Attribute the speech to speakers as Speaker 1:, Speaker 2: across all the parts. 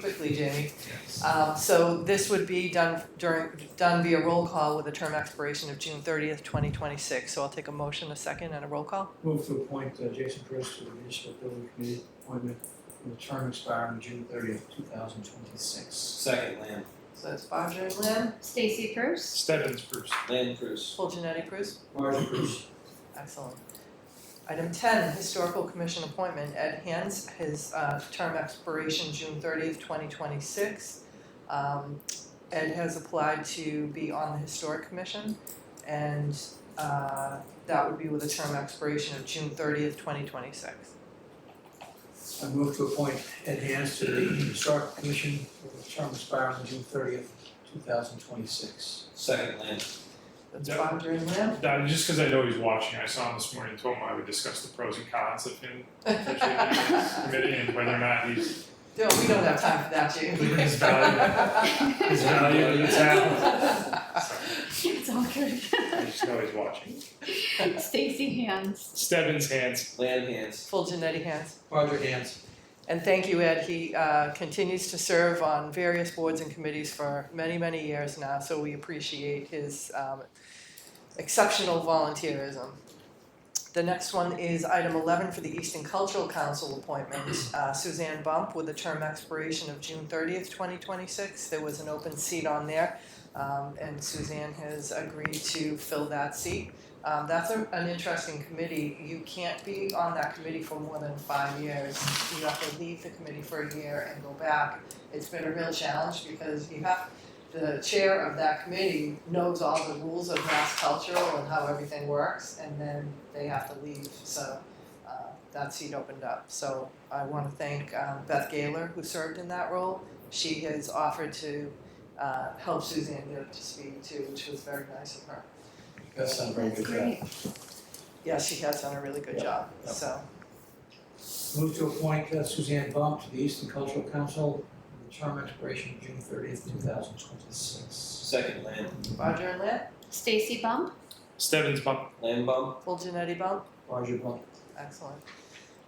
Speaker 1: quickly, Jamie. Uh, so this would be done during, done via roll call with a term expiration of June thirtieth, twenty twenty-six. So I'll take a motion, a second, and a roll call.
Speaker 2: Move to appoint uh, Jason Chris to the municipal building committee appointment with a term expiring June thirtieth, two thousand twenty-six.
Speaker 3: Second, Lamb.
Speaker 1: So that's Bodger and Lynn,
Speaker 4: Stacy Bruce,
Speaker 5: Stebbins first.
Speaker 3: Lamb Cruz.
Speaker 1: full genetic Bruce.
Speaker 2: Marge Bruce.
Speaker 1: Excellent. Item ten, historical commission appointment, Ed Hans, his uh term expiration June thirtieth, twenty twenty-six. Um Ed has applied to be on the historic commission and uh that would be with a term expiration of June thirtieth, twenty twenty-six.
Speaker 2: I move to appoint Ed Hans to the historic commission with a term expiring June thirtieth, two thousand twenty-six.
Speaker 3: Second, Lamb.
Speaker 1: That's
Speaker 5: Yep.
Speaker 1: Bodger and Lamb.
Speaker 5: That, just because I know he's watching, I saw him this morning, told him I would discuss the pros and cons of him potentially being on this committee and whether or not he's,
Speaker 1: No, we don't have time for that, Jamie.
Speaker 5: We can spell his value to the town.
Speaker 4: it's all good.
Speaker 5: I just know he's watching.
Speaker 4: Stacy Hands,
Speaker 5: Stebbins hands.
Speaker 3: Lamb hands.
Speaker 1: Full genetic Hans.
Speaker 2: Marge Hans.
Speaker 1: And thank you, Ed. He uh, continues to serve on various boards and committees for many, many years now, so we appreciate his um, exceptional volunteerism. The next one is item 11 for the Eastern Cultural Council appointment, uh, Suzanne Bump, with a term expiration of June 30th, 2026. There was an open seat on there, um, and Suzanne has agreed to fill that seat. Um, That's a- an interesting committee. You can't be on that committee for more than five years you have to leave the committee for a year and go back. It's been a real challenge because you have, the chair of that committee knows all the rules of mass cultural and how everything works, and then they have to leave, so uh that seat opened up. So I wanna thank um Beth Gaylor, who served in that role. She has offered to uh help Suzanne get up to speed too, which was very nice of her.
Speaker 2: That's not a very
Speaker 4: that's
Speaker 2: good job.
Speaker 4: great.
Speaker 1: Yeah, she has done a really good
Speaker 2: Yeah,
Speaker 1: job,
Speaker 2: yeah.
Speaker 1: so.
Speaker 2: Move to appoint uh, Suzanne Bump to the Eastern Cultural Council with a term expiration June thirtieth, two thousand twenty-six.
Speaker 3: Second, Lamb.
Speaker 1: Roger and Lynn,
Speaker 4: Stacy Bump,
Speaker 5: Stebbins bump.
Speaker 3: Lamb bump.
Speaker 1: full Janetti bump.
Speaker 2: Marge Bump.
Speaker 1: Excellent.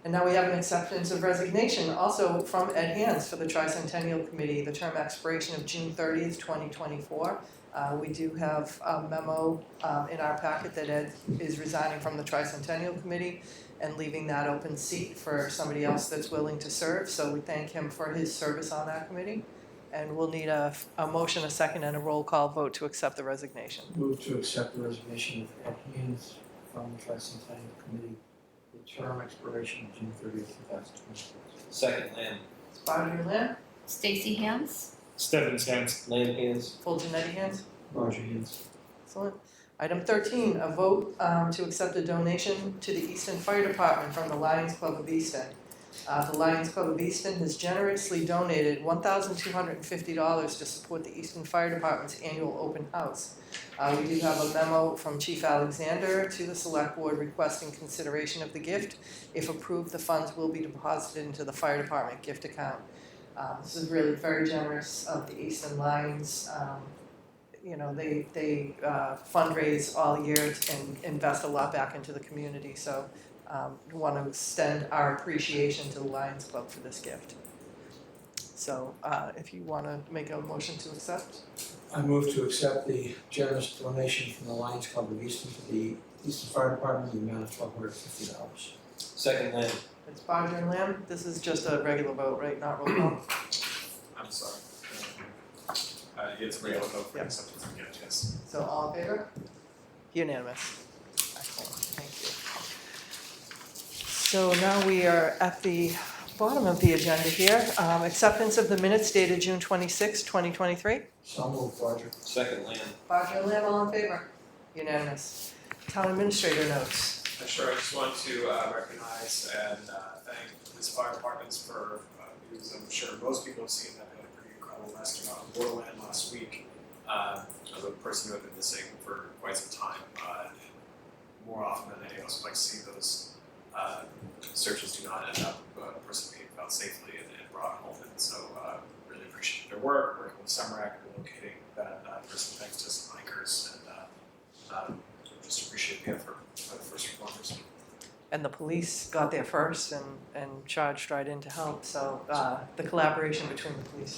Speaker 1: And now we have an acceptance of resignation, also from Ed Hands for the Tricentennial Committee, the term expiration of June thirtieth, twenty twenty-four. Uh, we do have a memo, um, in our packet that Ed is resigning from the Tricentennial Committee and leaving that open seat for somebody else that's willing to serve, so we thank him for his service on that committee. And we'll need a, a motion, a second, and a roll call vote to accept the resignation.
Speaker 2: Move to accept the resignation of Ed Haynes from the Tricentennial Committee, the term expiration of June thirtieth, two thousand twenty-six.
Speaker 3: Second, Lamb.
Speaker 1: Bodger Lynn,
Speaker 4: Stacy Hands,
Speaker 5: Stebbins hands.
Speaker 3: Lamb hands.
Speaker 1: full Janetti hands.
Speaker 2: Roger Haynes.
Speaker 1: Excellent. Item thirteen, a vote um, to accept a donation to the Easton Fire Department from the Lions Club of Easton. Uh, The Lions Club of Easton has generously donated one thousand two hundred and fifty dollars to support the Easton Fire Department's annual open house. Uh, We do have a memo from Chief Alexander to the Select Board requesting consideration of the gift. If approved, the funds will be deposited into the Fire Department gift account. Uh, This is really very generous of the Easton Lions um, you know, they, they uh, fundraise all year and invest a lot back into the community, so um, want to extend our appreciation to the Lions Club for this gift. So uh, if you want to make a motion to accept,
Speaker 2: I move to accept the generous donation from the Lions Club of Easton to the Easton Fire Department, in the amount of twelve hundred fifty dollars.
Speaker 3: Second, Lamb.
Speaker 1: it's Bodger and Lamb, this is just a regular vote, right, not roll call?
Speaker 6: I'm sorry. Uh, it's real, no, for
Speaker 1: Yep.
Speaker 6: acceptance, yeah, yes.
Speaker 1: So all in favor? Unanimous. Excellent, thank you. So now we are at the bottom of the agenda here, Um, acceptance of the minutes dated June 26, 2023.
Speaker 2: So moved, Roger.
Speaker 3: Second, Lamb.
Speaker 1: Bodger and Lamb, all in favor? Unanimous. Town administrator notes.
Speaker 6: Uh, Sure, I just want to uh, recognize and uh, thank the police fire departments for, uh, news I'm sure most people have seen, that we had a pretty incredible rescue out of Borderland last week. Uh, Of a person who had been missing for quite some time, uh, and more often than any of us would like to see those uh, searches do not end up, uh, a person being found safely and and brought home. And so uh, really appreciate their work, working with SEMRAC, and locating that uh, person thanks to some hikers and uh, um, just appreciate the effort by the first responders.
Speaker 1: and the police got there first and, and charged right in to help. So uh, the collaboration between the police